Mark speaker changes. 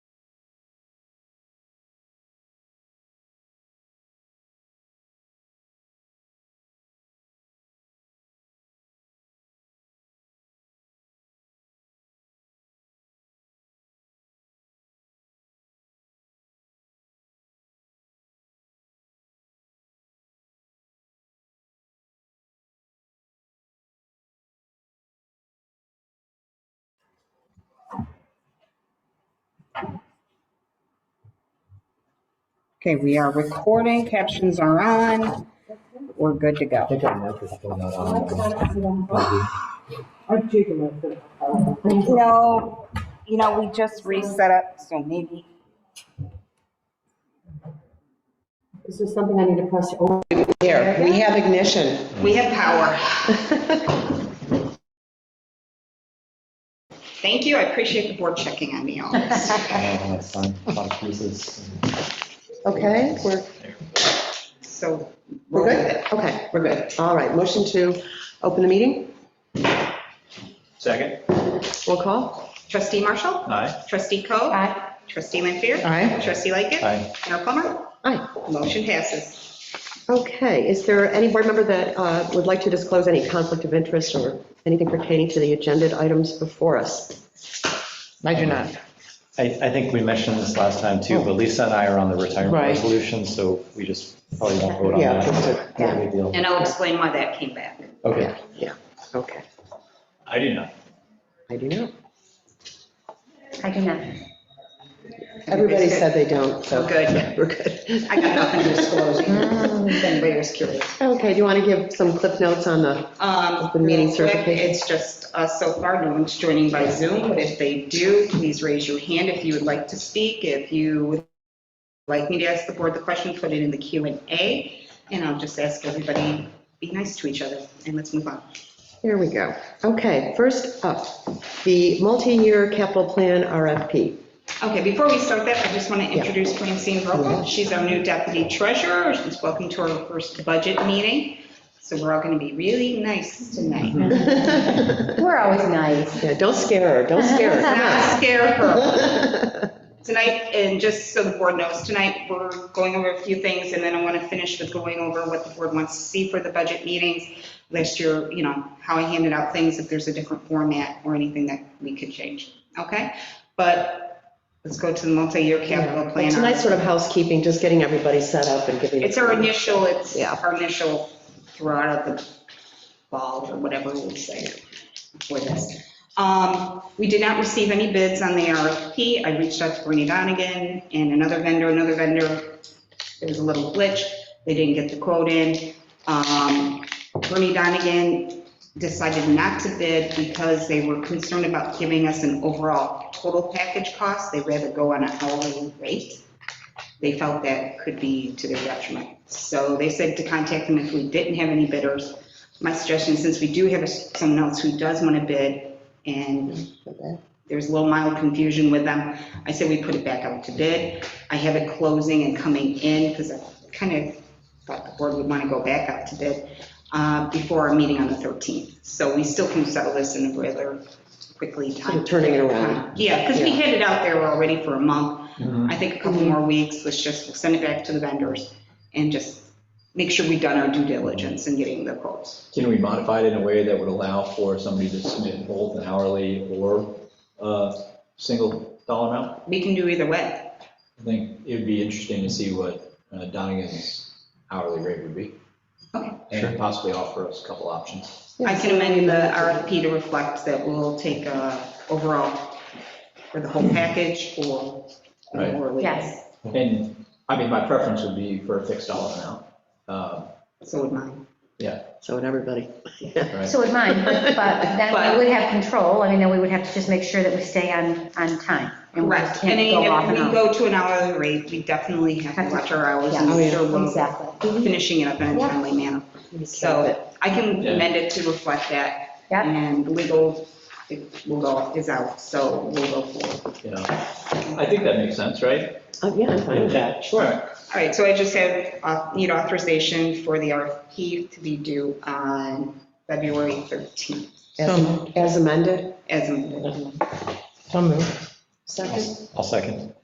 Speaker 1: Okay, we are recording, captions are on, we're good to
Speaker 2: I
Speaker 1: go.
Speaker 2: think our mic is still not
Speaker 3: Um,
Speaker 2: on.
Speaker 1: No, you know, we just reset up, so maybe,
Speaker 4: Is this something I need to press? Oh,
Speaker 5: Here, we have ignition.
Speaker 1: we have power. Thank you, I appreciate the board checking on me on this.
Speaker 2: Uh, it's on a lot of pieces.
Speaker 5: Okay, we're,
Speaker 1: So.
Speaker 5: we're good? Okay, we're good. All right, motion to open the meeting,
Speaker 3: Second.
Speaker 5: roll call.
Speaker 1: Trustee Marshall?
Speaker 3: Aye.
Speaker 1: Trustee Coe? Trustee Lanfair?
Speaker 5: Aye.
Speaker 1: Trustee Lightgev?
Speaker 3: Aye.
Speaker 1: Mayor Plummer?
Speaker 5: Aye.
Speaker 1: Motion passes.
Speaker 5: Okay, is there any board member that uh, would like to disclose any conflict of interest or anything pertaining to the agenda items before us?
Speaker 6: I do not.
Speaker 3: I, I think we mentioned this last time too, but Lisa and I are on the retirement
Speaker 6: Right.
Speaker 3: resolution, so we just probably won't vote on
Speaker 5: Yeah,
Speaker 3: that.
Speaker 5: just a-
Speaker 3: No big deal.
Speaker 1: And I'll explain why that came back.
Speaker 3: Okay.
Speaker 5: yeah, okay,
Speaker 3: I do not.
Speaker 5: I do know.
Speaker 4: I do not.
Speaker 5: Everybody said they don't, so.
Speaker 1: We're good.
Speaker 5: We're good.
Speaker 1: I got nothing to disclose. If anybody was curious.
Speaker 5: Okay, do you want to give some clip notes on the,
Speaker 1: Um,
Speaker 5: The meeting
Speaker 1: real quick,
Speaker 5: certification.
Speaker 1: It's just, uh, so far, no one's joining by Zoom, but if they do, please raise your hand if you would like to speak. If you would like me to ask the board the question, put it in the Q and A, and I'll just ask everybody, be nice to each other, and let's move on.
Speaker 5: here we go. Okay, first up, the multi-year capital plan RFP.
Speaker 1: Okay, before we start that, I just want to introduce Francine Vogel. She's our new deputy treasurer. She's welcome to our first budget meeting. So we're all going to be really nice tonight.
Speaker 5: Mm-hmm.
Speaker 4: We're always nice.
Speaker 5: Yeah, don't scare her, don't scare her. come on.
Speaker 1: Not scare her. Tonight, and just so the board knows, tonight, we're going over a few things, and then I want to finish with going over what the board wants to see for the budget meetings. Last year, you know, how I handed out things, if there's a different format or anything that we could change, okay? But let's go to the multi-year capital
Speaker 5: Yeah, but
Speaker 1: plan.
Speaker 5: Tonight's sort of housekeeping, just getting everybody set up and giving.
Speaker 1: It's our initial, it's
Speaker 5: Yeah.
Speaker 1: our initial throw out of the ball or whatever we say for this. Um, We did not receive any bids on the RFP. I reached out to Bernie Donigan and another vendor, another vendor. There was a little glitch. They didn't get the quote in. Um, Bernie Donigan decided not to bid because they were concerned about giving us an overall total package cost. They'd rather go on an hourly rate they felt that could be to their detriment. So they said to contact them if we didn't have any bidders. My suggestion, since we do have someone else who does want to bid, and there's a little mild confusion with them, I said we put it back out to bid. I have it closing and coming in, because I kind of thought the board would want to go back out to bid uh, before our meeting on the 13th. So we still can settle this in a rather quickly
Speaker 5: Sort
Speaker 1: time.
Speaker 5: of turning it around.
Speaker 1: Yeah, because we
Speaker 5: Yeah.
Speaker 1: had it out there already for a month. I think a couple more weeks, let's just send it back to the vendors and just make sure we've done our due diligence in getting the quotes.
Speaker 7: Can we modify it in a way that would allow for somebody to submit both an hourly or a single dollar amount?
Speaker 1: We can do either way.
Speaker 7: I think it would be interesting to see what uh, Donegan's hourly rate would be.
Speaker 1: Okay.
Speaker 7: And possibly offer us a couple options.
Speaker 1: I can amend the RFP to reflect that we'll take a overall for the whole package or.
Speaker 7: Right.
Speaker 4: Yes.
Speaker 7: And, I mean, my preference would be for a fixed dollar amount. Um,
Speaker 1: So would mine.
Speaker 5: So would everybody.
Speaker 7: right?
Speaker 4: So would mine, but then
Speaker 1: But-
Speaker 4: we would have control. I mean, then we would have to just make sure that we stay on, on time. and we
Speaker 1: Correct. And
Speaker 4: can't go off
Speaker 1: if
Speaker 4: and
Speaker 1: we
Speaker 4: on.
Speaker 1: go to an hourly rate, we definitely have to watch our hours and
Speaker 4: Yeah.
Speaker 5: Oh, yeah.
Speaker 1: make sure we're
Speaker 4: Exactly.
Speaker 1: finishing it up in a
Speaker 4: Yeah.
Speaker 1: timely manner. So I can amend it to reflect that
Speaker 4: Yep,
Speaker 1: And legal, it will go, is out, so we'll go forward.
Speaker 7: Yeah. I think that makes sense, right?
Speaker 5: Oh, Yeah, I'm fine with that, sure.
Speaker 1: All right, so I just have, uh, need authorization for the RFP to be due on February 13th,
Speaker 5: As as amended,
Speaker 1: as amended.
Speaker 6: So moved.
Speaker 5: second?
Speaker 3: I'll second.